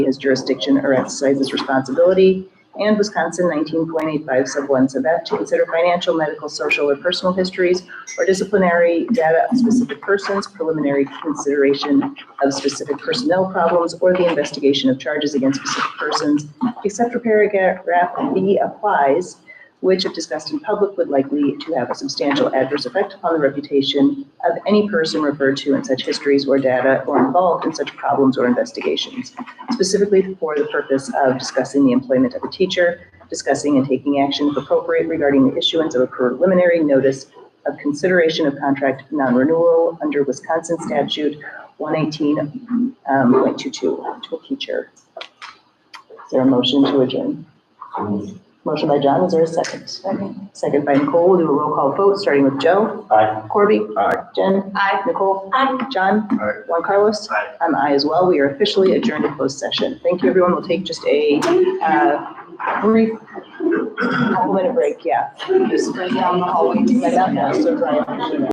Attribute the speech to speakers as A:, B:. A: his jurisdiction or exercise his responsibility, and Wisconsin 19.85 sub 1 sub F to consider financial, medical, social, or personal histories or disciplinary data of specific persons, preliminary consideration of specific personnel problems, or the investigation of charges against specific persons, except for paragraph B applies, which if discussed in public would likely to have a substantial adverse effect upon the reputation of any person referred to in such histories or data or involved in such problems or investigations, specifically for the purpose of discussing the employment of a teacher, discussing and taking action if appropriate regarding the issuance of a preliminary notice of consideration of contract non-renewal under Wisconsin statute um, 118.22 to a teacher. Is there a motion to adjourn? Motion by John, is there a second? Second. Second by Nicole, we'll do a roll call vote, starting with Joe.
B: Aye.
A: Corby.
B: Aye.
A: Jen. Aye. Nicole. Aye. John.
B: Aye.
A: Juan Carlos.
B: Aye.
A: I'm aye as well. We are officially adjourned to closed session. Thank you, everyone. We'll take just a uh, brief couple minute break, yeah. Just right down the hallway. Right down there, so Brian.